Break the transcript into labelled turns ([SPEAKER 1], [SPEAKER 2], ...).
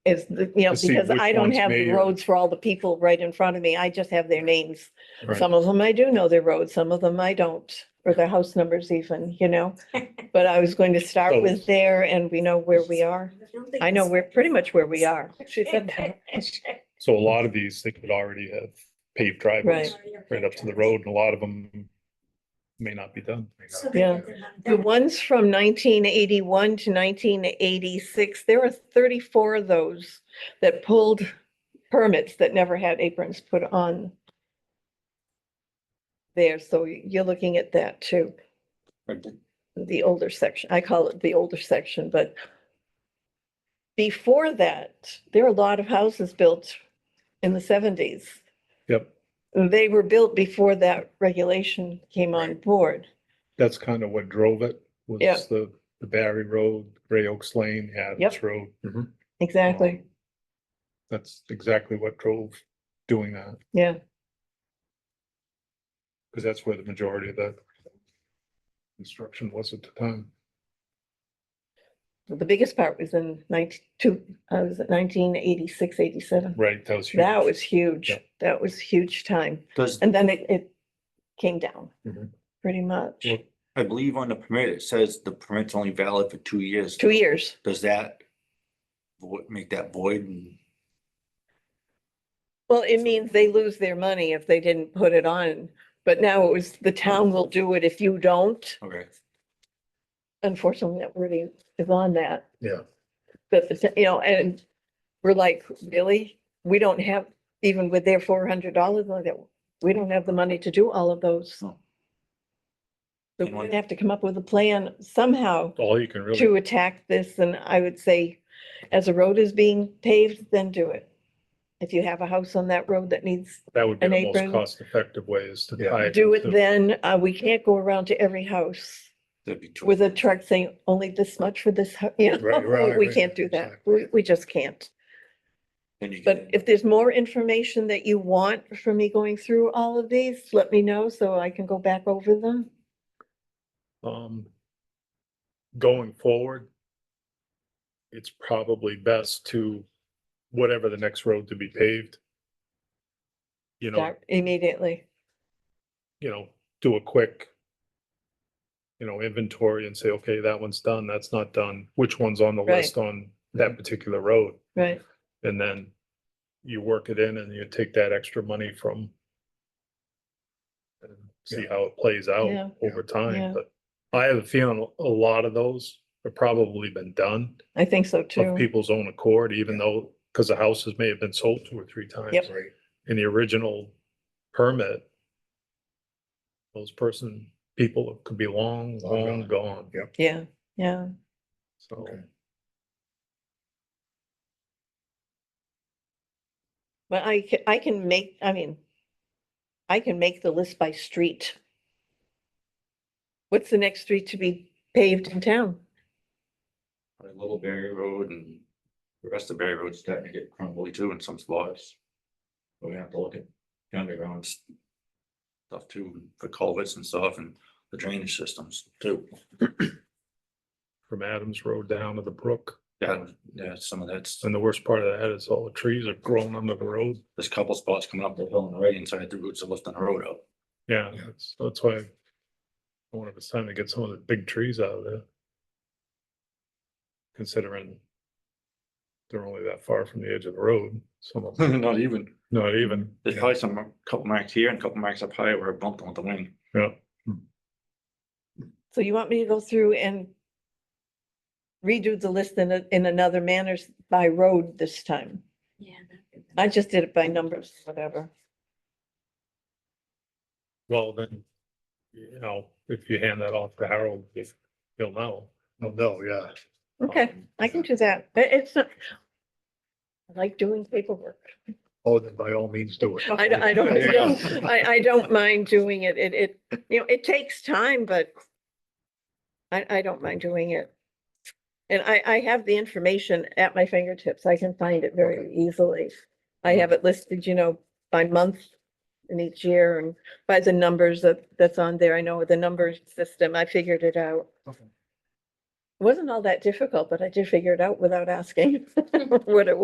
[SPEAKER 1] is, the- you know,
[SPEAKER 2] To see
[SPEAKER 1] because
[SPEAKER 2] which
[SPEAKER 1] I don't
[SPEAKER 2] one's
[SPEAKER 1] have the
[SPEAKER 2] mayor.
[SPEAKER 1] roads for all the people right in front of me. I just have their names.
[SPEAKER 2] Right.
[SPEAKER 1] Some of them I do know their roads, some of them I don't, or their house numbers even, you know? But I was going to
[SPEAKER 2] So-
[SPEAKER 1] start with there and we know where we are. I know we're pretty much where we are.
[SPEAKER 3] She said that.
[SPEAKER 2] So a lot of these, they could already have paved driveways right up to the road, and a lot of them may not be done.
[SPEAKER 1] Yeah. The ones from nineteen eighty-one to nineteen eighty-six, there were thirty-four of those that pulled permits that never had aprons put on there, so you're looking at that too, the older section. I call it the older section, but before that, there were a lot of houses built in the seventies.
[SPEAKER 2] Yep,
[SPEAKER 1] They were built before that regulation came on board.
[SPEAKER 2] that's kind of what drove it, was
[SPEAKER 1] Yeah.
[SPEAKER 2] the, the Barry Road, Gray Oaks Lane, Adams
[SPEAKER 1] Yep.
[SPEAKER 2] Road.
[SPEAKER 1] Exactly.
[SPEAKER 2] Um, That's exactly what drove doing that,
[SPEAKER 1] Yeah,
[SPEAKER 2] because that's where the majority of the construction was at the time.
[SPEAKER 1] the biggest part was in nineteen, two, I was at nineteen eighty-six, eighty-seven.
[SPEAKER 2] Right, that was huge.
[SPEAKER 1] That was huge.
[SPEAKER 2] Yeah.
[SPEAKER 1] That was huge time.
[SPEAKER 4] Does,
[SPEAKER 1] And then it, it came down
[SPEAKER 2] Mhm.
[SPEAKER 1] pretty much.
[SPEAKER 2] Yeah.
[SPEAKER 4] I believe on the permit, it says the permit's only valid for two years.
[SPEAKER 1] Two years.
[SPEAKER 4] Does that vo- make that void and
[SPEAKER 1] Well, it means they lose their money if they didn't put it on. But now it was, the town will do it if you don't.
[SPEAKER 4] okay,
[SPEAKER 1] Unfortunately, that really is on that.
[SPEAKER 2] Yeah.
[SPEAKER 1] But, the t- you know, and we're like, really? We don't have, even with their four hundred dollars like that, we don't have the money to do all of those. So
[SPEAKER 4] No.
[SPEAKER 1] we're
[SPEAKER 4] And one-
[SPEAKER 1] gonna have to come up with a plan somehow
[SPEAKER 2] All you can really,
[SPEAKER 1] to attack this, and I would say, as a road is being paved, then do it. If you have a house on that road that needs,
[SPEAKER 2] that would be
[SPEAKER 1] an
[SPEAKER 2] the most
[SPEAKER 1] apron.
[SPEAKER 2] cost-effective way is to tie.
[SPEAKER 1] do it
[SPEAKER 2] into-
[SPEAKER 1] then, uh, we can't go around to every house
[SPEAKER 4] that'd be two.
[SPEAKER 1] with a truck saying, only this much for this, hou-" you
[SPEAKER 2] Right,
[SPEAKER 1] know,
[SPEAKER 2] right,
[SPEAKER 1] we
[SPEAKER 2] right,
[SPEAKER 1] can't do that,
[SPEAKER 2] exactly.
[SPEAKER 1] we, we just can't.
[SPEAKER 4] then you
[SPEAKER 1] But
[SPEAKER 4] can-
[SPEAKER 1] if there's more information that you want from me going through all of these, let me know so I can go back over them.
[SPEAKER 2] Um, going forward, it's probably best to, whatever the next road to be paved, you know,
[SPEAKER 1] Start Immediately,
[SPEAKER 2] you know, do a quick, you know, inventory and say, okay, that one's done, that's not done, which one's on the
[SPEAKER 1] Right.
[SPEAKER 2] list on that particular road?
[SPEAKER 1] right,
[SPEAKER 2] And then you work it in and you take that extra money from and see how it plays
[SPEAKER 1] Yeah.
[SPEAKER 2] out over
[SPEAKER 1] Yeah.
[SPEAKER 2] time, but I have a feeling a lot of those have probably been done
[SPEAKER 1] I think so
[SPEAKER 2] of
[SPEAKER 1] too,
[SPEAKER 2] people's own accord, even though, because the houses may have been sold two or three times.
[SPEAKER 1] Yep.
[SPEAKER 2] Right. In the original permit, those person, people could be long, long gone. Yep.
[SPEAKER 1] yeah, yeah.
[SPEAKER 2] So,
[SPEAKER 1] But I can, I can make, I mean, I can make the list by street. What's the next street to be paved in town?
[SPEAKER 4] Probably Little Berry Road and the rest of Berry Road's starting to get crumbly too in some spots. We're gonna have to look at the underground s- stuff too, for culverts and stuff and the drainage systems too.
[SPEAKER 2] from Adams Road down to the brook,
[SPEAKER 4] Yeah, yeah, some of that's,
[SPEAKER 2] and the worst part of that is all the trees are growing under the road.
[SPEAKER 4] there's a couple spots coming up the hill and right inside the roots of lifting the road up.
[SPEAKER 2] Yeah, that's, that's why I wonder if it's time to get some of the big trees out of there. Considering they're only that far from the edge of the road, some of them,
[SPEAKER 4] Not even.
[SPEAKER 2] not even.
[SPEAKER 4] There's probably some, couple marks here and couple marks up high where it bumped on the wing.
[SPEAKER 2] Yeah,
[SPEAKER 1] So you want me to go through and redo the list in, a- in another manner s- by road this time?
[SPEAKER 3] Yeah.
[SPEAKER 1] I just did it by numbers, whatever.
[SPEAKER 2] well, then, you know, if you hand that off to Harold, if- he'll know. He'll know, yeah.
[SPEAKER 1] Okay,
[SPEAKER 2] Um,
[SPEAKER 1] I can do that, but it's not. I like doing paperwork.
[SPEAKER 2] Oh, then by all means do it.
[SPEAKER 1] I, don't- I don't, I don't- I, I don't mind doing it. It, it, you know, it takes time, but I, I don't mind doing it. And I, I have the information at my fingertips. I can find it very easily. I have it listed, you know, by month in each year and by the numbers that, that's on there. I know the number system. I figured it out.
[SPEAKER 4] Okay.
[SPEAKER 1] It Wasn't all that difficult, but I did figure it out without asking what it